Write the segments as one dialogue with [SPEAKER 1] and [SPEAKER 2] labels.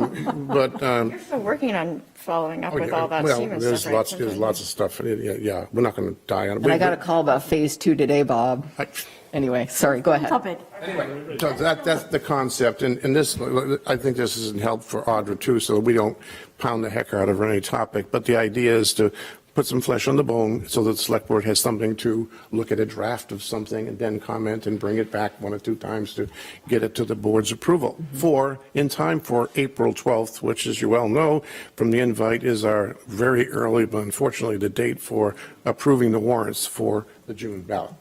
[SPEAKER 1] Um, But, um,
[SPEAKER 2] You're still working on following up
[SPEAKER 1] oh,
[SPEAKER 2] with all
[SPEAKER 1] yeah,
[SPEAKER 2] that
[SPEAKER 1] well,
[SPEAKER 2] semen
[SPEAKER 1] there's
[SPEAKER 2] stuff, right?
[SPEAKER 1] lots, there's lots of stuff, Yeah, yeah, yeah, we're not going to die on it.
[SPEAKER 3] And I got a call about phase two today, Bob.
[SPEAKER 1] I-
[SPEAKER 3] Anyway, sorry, go ahead.
[SPEAKER 4] Puppet.
[SPEAKER 1] So that, that's the concept, and, and this, I think this is in help for Audra too, so that we don't pound the heck out of her on any topic, but the idea is to put some flesh on the bone so that the select board has something to look at a draft of something and then comment and bring it back one or two times to get it to the board's approval. For, in time for April 12th, which as you well know, from the invite is our very early, but unfortunately the date for approving the warrants for the June ballot.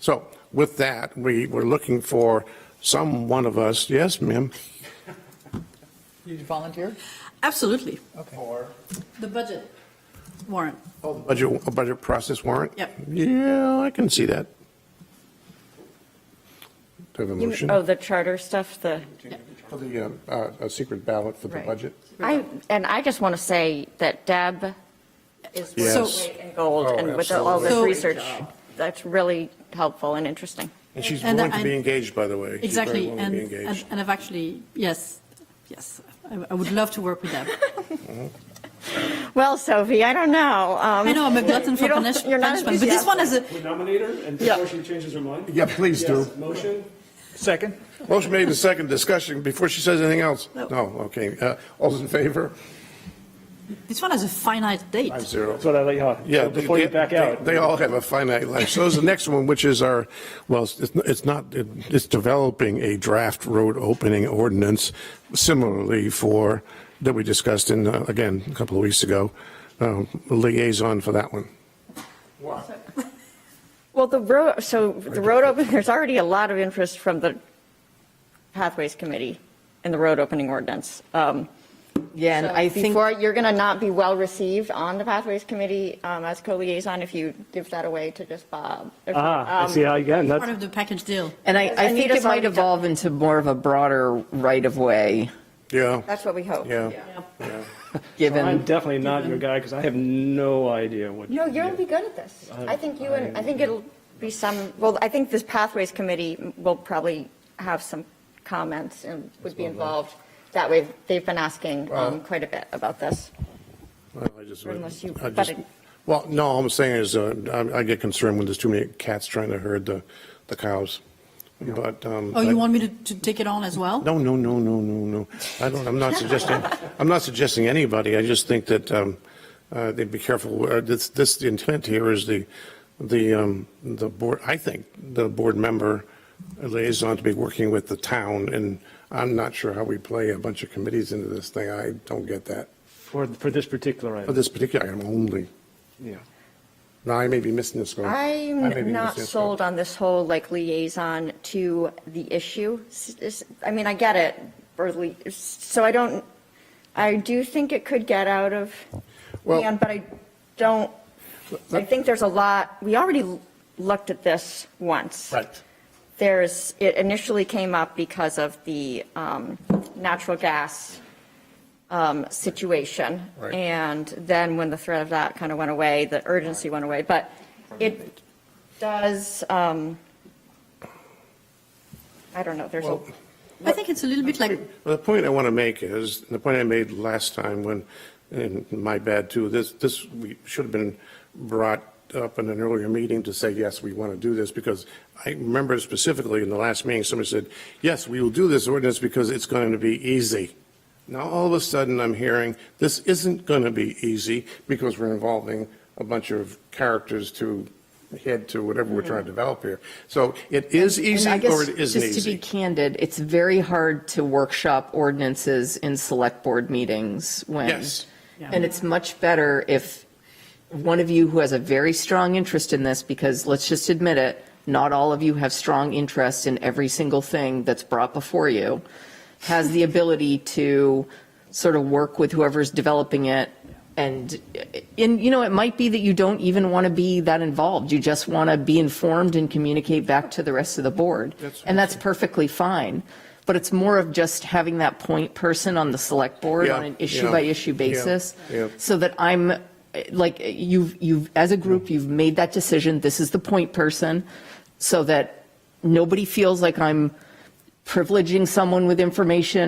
[SPEAKER 1] So with that, we were looking for some one of us, yes, ma'am?
[SPEAKER 3] Did you volunteer?
[SPEAKER 4] Absolutely.
[SPEAKER 3] Okay.
[SPEAKER 4] The budget warrant.
[SPEAKER 1] Oh, the Budget, a budget process warrant?
[SPEAKER 4] Yep.
[SPEAKER 1] Yeah, I can see that. Do I have a
[SPEAKER 2] You-
[SPEAKER 1] motion?
[SPEAKER 2] Oh, the charter stuff, the,
[SPEAKER 1] For the, uh, uh, a secret ballot for the
[SPEAKER 2] Right.
[SPEAKER 1] budget?
[SPEAKER 2] I, and I just want to say that Deb is
[SPEAKER 1] Yes.
[SPEAKER 2] working in gold
[SPEAKER 1] Oh,
[SPEAKER 2] and with all this
[SPEAKER 4] absolutely.
[SPEAKER 2] research, that's really helpful and interesting.
[SPEAKER 1] And she's
[SPEAKER 4] And
[SPEAKER 1] willing to
[SPEAKER 4] I-
[SPEAKER 1] be engaged, by the way. She's very
[SPEAKER 4] Exactly.
[SPEAKER 1] willing to
[SPEAKER 4] And,
[SPEAKER 1] be
[SPEAKER 4] and
[SPEAKER 1] engaged.
[SPEAKER 4] and I've actually, yes, yes, I I would love to work with them.
[SPEAKER 2] Well, Sophie, I don't know. um,
[SPEAKER 4] I know I'm a glutton for
[SPEAKER 2] You don't-
[SPEAKER 4] punish-
[SPEAKER 2] you're not
[SPEAKER 4] punishment, but this one is a,
[SPEAKER 5] We nominate her, and
[SPEAKER 2] Yeah.
[SPEAKER 5] before she changes her mind?
[SPEAKER 1] Yeah, please do.
[SPEAKER 5] Yes, Motion?
[SPEAKER 6] Second?
[SPEAKER 1] Motion made in second discussion, before she says anything else?
[SPEAKER 4] No.
[SPEAKER 1] No, okay. Uh, All those in favor?
[SPEAKER 4] this one has a finite date.
[SPEAKER 1] Five zero.
[SPEAKER 6] That's what I let you on.
[SPEAKER 1] Yeah.
[SPEAKER 6] So Before you
[SPEAKER 1] they-
[SPEAKER 6] back
[SPEAKER 1] they-
[SPEAKER 6] out.
[SPEAKER 1] They all have a finite life. So is the next one, which is our, well, it's it's not, it's developing a draft road opening ordinance similarly for, that we discussed in, uh, again, a couple of weeks ago, um, liaison for that one.
[SPEAKER 2] Well, the road, so the road open, there's already a lot of interest from the Pathways Committee in the road opening ordinance. Um,
[SPEAKER 3] Yeah, and
[SPEAKER 2] So
[SPEAKER 3] I think,
[SPEAKER 2] Before, you're going to not be well-received on the Pathways Committee um, as co-liaison if you give that away to just Bob. If-
[SPEAKER 6] Ah, I
[SPEAKER 2] um,
[SPEAKER 6] see how you got, it.
[SPEAKER 4] Part
[SPEAKER 6] that's,
[SPEAKER 4] of the package deal.
[SPEAKER 3] and I, I think
[SPEAKER 2] Anita's
[SPEAKER 3] it might
[SPEAKER 2] already done-
[SPEAKER 3] evolve into more of a broader right-of-way,
[SPEAKER 1] Yeah,
[SPEAKER 2] That's what we hope.
[SPEAKER 1] yeah.
[SPEAKER 6] I'm
[SPEAKER 3] given,
[SPEAKER 6] definitely not your guy because I have no idea what.
[SPEAKER 2] No, you'll be good at this. I think you and, I think it'll be some, well, I think this Pathways Committee will probably have some comments and would be involved. That way, they've been asking um, quite a bit about this.
[SPEAKER 1] Well, I just-
[SPEAKER 2] Unless you-
[SPEAKER 1] I
[SPEAKER 2] but
[SPEAKER 1] just-
[SPEAKER 2] it-
[SPEAKER 1] Well, no, all I'm saying is, uh, I I get concerned when there's too many cats trying to herd the the cows, but. um,
[SPEAKER 4] Oh, you
[SPEAKER 1] I-
[SPEAKER 4] want me to, to take it on as well?
[SPEAKER 1] No, no, no, no, no, no. I don't, I'm not suggesting, I'm not suggesting anybody. I just think that um, uh, they'd be careful. Uh, This, this the intent here is the, the, um, the board, I think, the board member liaison to be working with the town, and I'm not sure how we play a bunch of committees into this thing. I don't get that.
[SPEAKER 6] For, for this particular
[SPEAKER 1] For
[SPEAKER 6] item,
[SPEAKER 1] this particular item only.
[SPEAKER 6] yeah.
[SPEAKER 1] Now, I may be missing this one. I may be
[SPEAKER 2] I'm not
[SPEAKER 1] missing this
[SPEAKER 2] sold
[SPEAKER 1] one.
[SPEAKER 2] on this whole like liaison to the issue. S- s- I mean, I get it, or li- so I don't, I do think it could get out of
[SPEAKER 1] Well-
[SPEAKER 2] hand, but I don't, I think there's a lot, we already looked at this once.
[SPEAKER 1] Right.
[SPEAKER 2] There's, it initially came up because of the um, natural gas um, situation.
[SPEAKER 1] Right.
[SPEAKER 2] And then when the threat of that kind of went away, the urgency went away. But it does, um, I don't know, there's a,
[SPEAKER 1] Well-
[SPEAKER 4] I think it's a little bit like,
[SPEAKER 1] Well, The point I want to make is, the point I made last time when, and my bad too, this, this, we should have been brought up in an earlier meeting to say, yes, we want to do this, because I remember specifically in the last meeting, somebody said, yes, we will do this ordinance because it's going to be easy. Now, all of a sudden, I'm hearing, this isn't going to be easy because we're involving a bunch of characters to head to whatever we're trying to develop here. So it is
[SPEAKER 3] Mm-hmm. and
[SPEAKER 1] easy
[SPEAKER 3] I guess,
[SPEAKER 1] or it isn't
[SPEAKER 3] just to be
[SPEAKER 1] easy.
[SPEAKER 3] candid, it's very hard to workshop ordinances in select board meetings when.
[SPEAKER 1] Yes.
[SPEAKER 3] And it's much better if one of you who has a very strong interest in this, because let's just admit it, not all of you have strong interest in every single thing that's brought before you, has the ability to sort of work with whoever's developing it. And, and, you know, it might be that you don't even want to be that involved. You just want to be informed and communicate back to the rest of the board. And that's perfectly fine. But it's more of just having that point person on the select board
[SPEAKER 1] Yeah,
[SPEAKER 3] on an
[SPEAKER 1] yeah,
[SPEAKER 3] issue by issue
[SPEAKER 1] yeah,
[SPEAKER 3] basis.
[SPEAKER 1] yeah.
[SPEAKER 3] So that I'm, eh, like, you've, you've, as a group, you've made that decision, this is the point person, so that nobody feels like I'm privileging someone with information